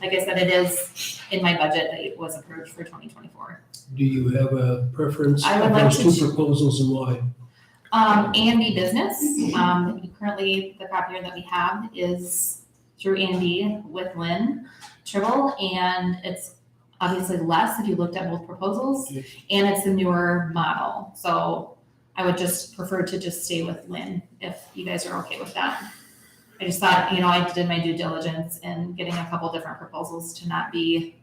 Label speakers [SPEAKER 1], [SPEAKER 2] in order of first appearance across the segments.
[SPEAKER 1] like I said, it is in my budget that it was approved for twenty twenty-four.
[SPEAKER 2] Do you have a preference
[SPEAKER 1] I would
[SPEAKER 2] of
[SPEAKER 1] like
[SPEAKER 2] those
[SPEAKER 1] to ch-
[SPEAKER 2] two proposals and why?
[SPEAKER 1] Um, Andy Business, um, currently the copier that we have is through Andy with Lynn Tribble, and it's obviously less if you looked at both proposals,
[SPEAKER 2] Yeah.
[SPEAKER 1] and it's a newer model, so I would just prefer to just stay with Lynn if you guys are okay with that. I just thought, you know, I did my due diligence in getting a couple different proposals to not be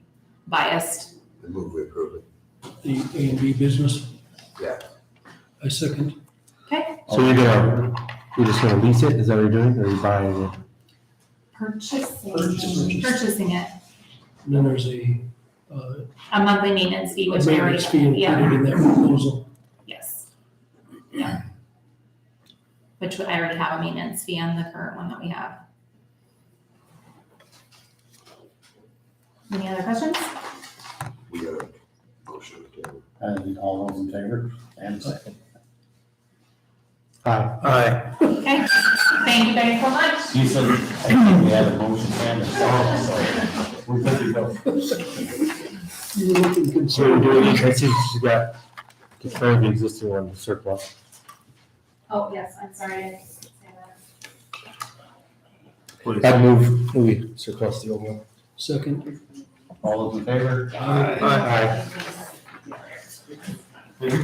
[SPEAKER 1] biased
[SPEAKER 3] I move we approve it.
[SPEAKER 2] The A and B business?
[SPEAKER 3] Yeah.
[SPEAKER 2] I second.
[SPEAKER 4] So you're gonna, you're just gonna lease it, is that what you're doing, or are you buying it?
[SPEAKER 1] Purchasing.
[SPEAKER 2] Purchase.
[SPEAKER 1] Purchasing it,
[SPEAKER 2] And then there's a, uh,
[SPEAKER 1] a monthly maintenance fee, which they already,
[SPEAKER 2] maintenance fee
[SPEAKER 1] yeah,
[SPEAKER 2] included in that proposal.
[SPEAKER 1] yes. Yeah. Which I already have a maintenance fee on the current one that we have. Any other questions?
[SPEAKER 3] We got a motion to table.
[SPEAKER 5] And all those in favor? And second.
[SPEAKER 4] Aye.
[SPEAKER 2] Aye.
[SPEAKER 1] Okay, thank you guys so much.
[SPEAKER 5] You said, I think we had a motion and a second, so we're good to go.
[SPEAKER 2] You're looking
[SPEAKER 4] So you're doing,
[SPEAKER 2] concerned.
[SPEAKER 4] I see you got, defer the existing one surplus.
[SPEAKER 1] Oh, yes, I'm sorry. I didn't say that.
[SPEAKER 4] I'd move, we surplus the old one.
[SPEAKER 2] Second.
[SPEAKER 5] All those in favor?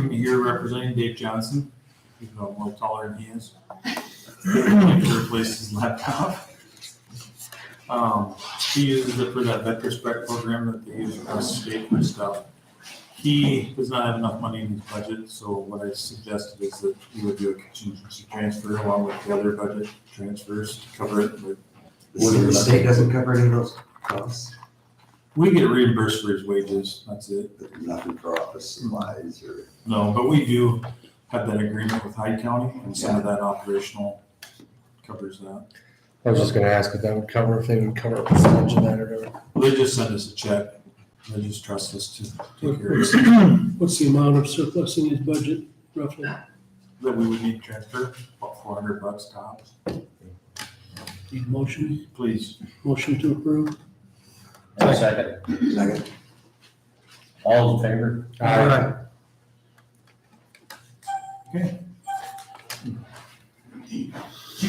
[SPEAKER 6] You're representing Dave Johnson, even though I'm a little taller than he is. To replace his laptop. Um, he uses it for that veterans spec program that they use across the state for stuff. He does not have enough money in his budget, so what I suggested is that he would do a contingency transfer along with the other budget transfers to cover it with
[SPEAKER 3] The state doesn't cover any of those costs,
[SPEAKER 6] We get reimbursed for his wages, that's it.
[SPEAKER 3] nothing for office supplies or.
[SPEAKER 6] No, but we do have that agreement with Hyde County and some of that operational covers that.
[SPEAKER 4] I was just gonna ask if that would cover, if they would cover a percentage of that or whatever.
[SPEAKER 6] They just send us a check. They just trust us to take care of it.
[SPEAKER 2] What's the amount of surplus in his budget roughly?
[SPEAKER 6] That we would need to transfer, about four hundred bucks tops.
[SPEAKER 2] Need a motion?
[SPEAKER 6] Please,
[SPEAKER 2] Motion to approve?
[SPEAKER 5] And a second.
[SPEAKER 3] Second.
[SPEAKER 5] All those in favor?
[SPEAKER 4] Aye.
[SPEAKER 5] You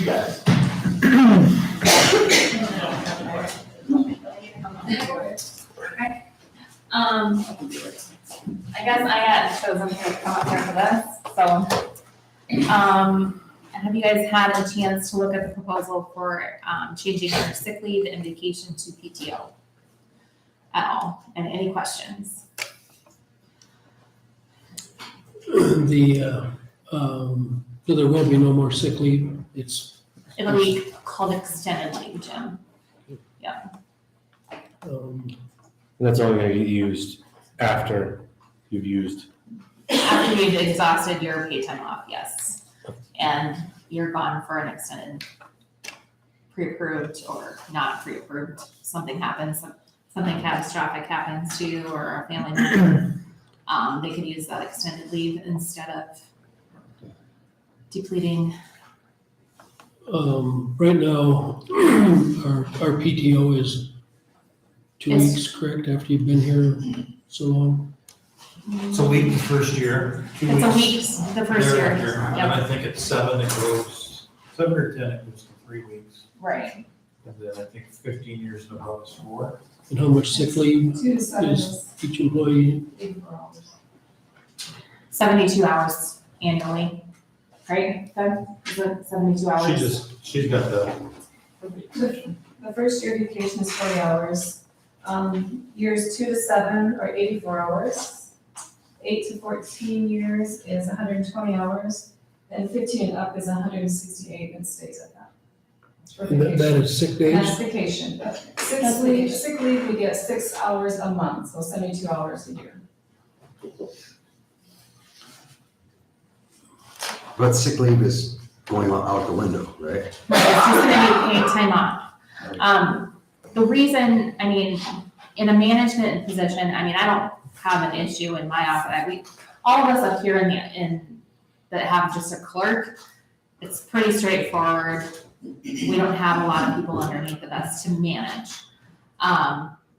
[SPEAKER 5] guys.
[SPEAKER 1] Um, I guess I had chosen to come up here for this, so. Um, have you guys had a chance to look at the proposal for, um, changing your sick leave and vacation to PTO? At all, and any questions?
[SPEAKER 2] The, uh, um, so there will be no more sick leave. It's,
[SPEAKER 1] It'll be called extended leave, Jim.
[SPEAKER 2] um,
[SPEAKER 4] And That's only gonna get used after you've used.
[SPEAKER 1] After you've exhausted your paid time off, yes, and you're gone for an extended pre-approved or not pre-approved, something happens, some- something catastrophic happens to you or a family member, um, they could use that extended leave instead of depleting,
[SPEAKER 2] Um, right now, our, our PTO is two
[SPEAKER 1] Is-
[SPEAKER 2] weeks, correct, after you've been here so long?
[SPEAKER 7] It's a week the first year, two
[SPEAKER 1] it's
[SPEAKER 7] weeks.
[SPEAKER 1] a week, the first year,
[SPEAKER 7] thereafter, And
[SPEAKER 1] yep,
[SPEAKER 7] I think at seven it goes, seven or ten it goes to three weeks.
[SPEAKER 1] right.
[SPEAKER 7] And then I think fifteen years and above is four.
[SPEAKER 2] And how much sick leave
[SPEAKER 1] Two
[SPEAKER 2] is each employee?
[SPEAKER 1] Seventy-two hours annually, right, Doug? Is it seventy-two hours?
[SPEAKER 7] She just, she's got the,
[SPEAKER 8] The the first year vacation is forty hours. Um, years two to seven are eighty-four hours. Eight to fourteen years is hundred and twenty hours, and fifteen and up is hundred and sixty-eight and stays at that. For
[SPEAKER 2] And that, that
[SPEAKER 8] vacation.
[SPEAKER 2] is sick
[SPEAKER 8] That's
[SPEAKER 2] days?
[SPEAKER 8] vacation. Sick
[SPEAKER 1] That's
[SPEAKER 8] leave,
[SPEAKER 1] vacation.
[SPEAKER 8] sick leave, we get six hours a month, so seventy-two hours a year.
[SPEAKER 3] But sick leave is going out the window, right?
[SPEAKER 1] Right, it's just gonna be paid time off. Um, the reason, I mean, in a management position, I mean, I don't have an issue in my office, I- we, all of us up here in the, in, that have just a clerk, it's pretty straightforward. We don't have a lot of people underneath of us to manage. Um,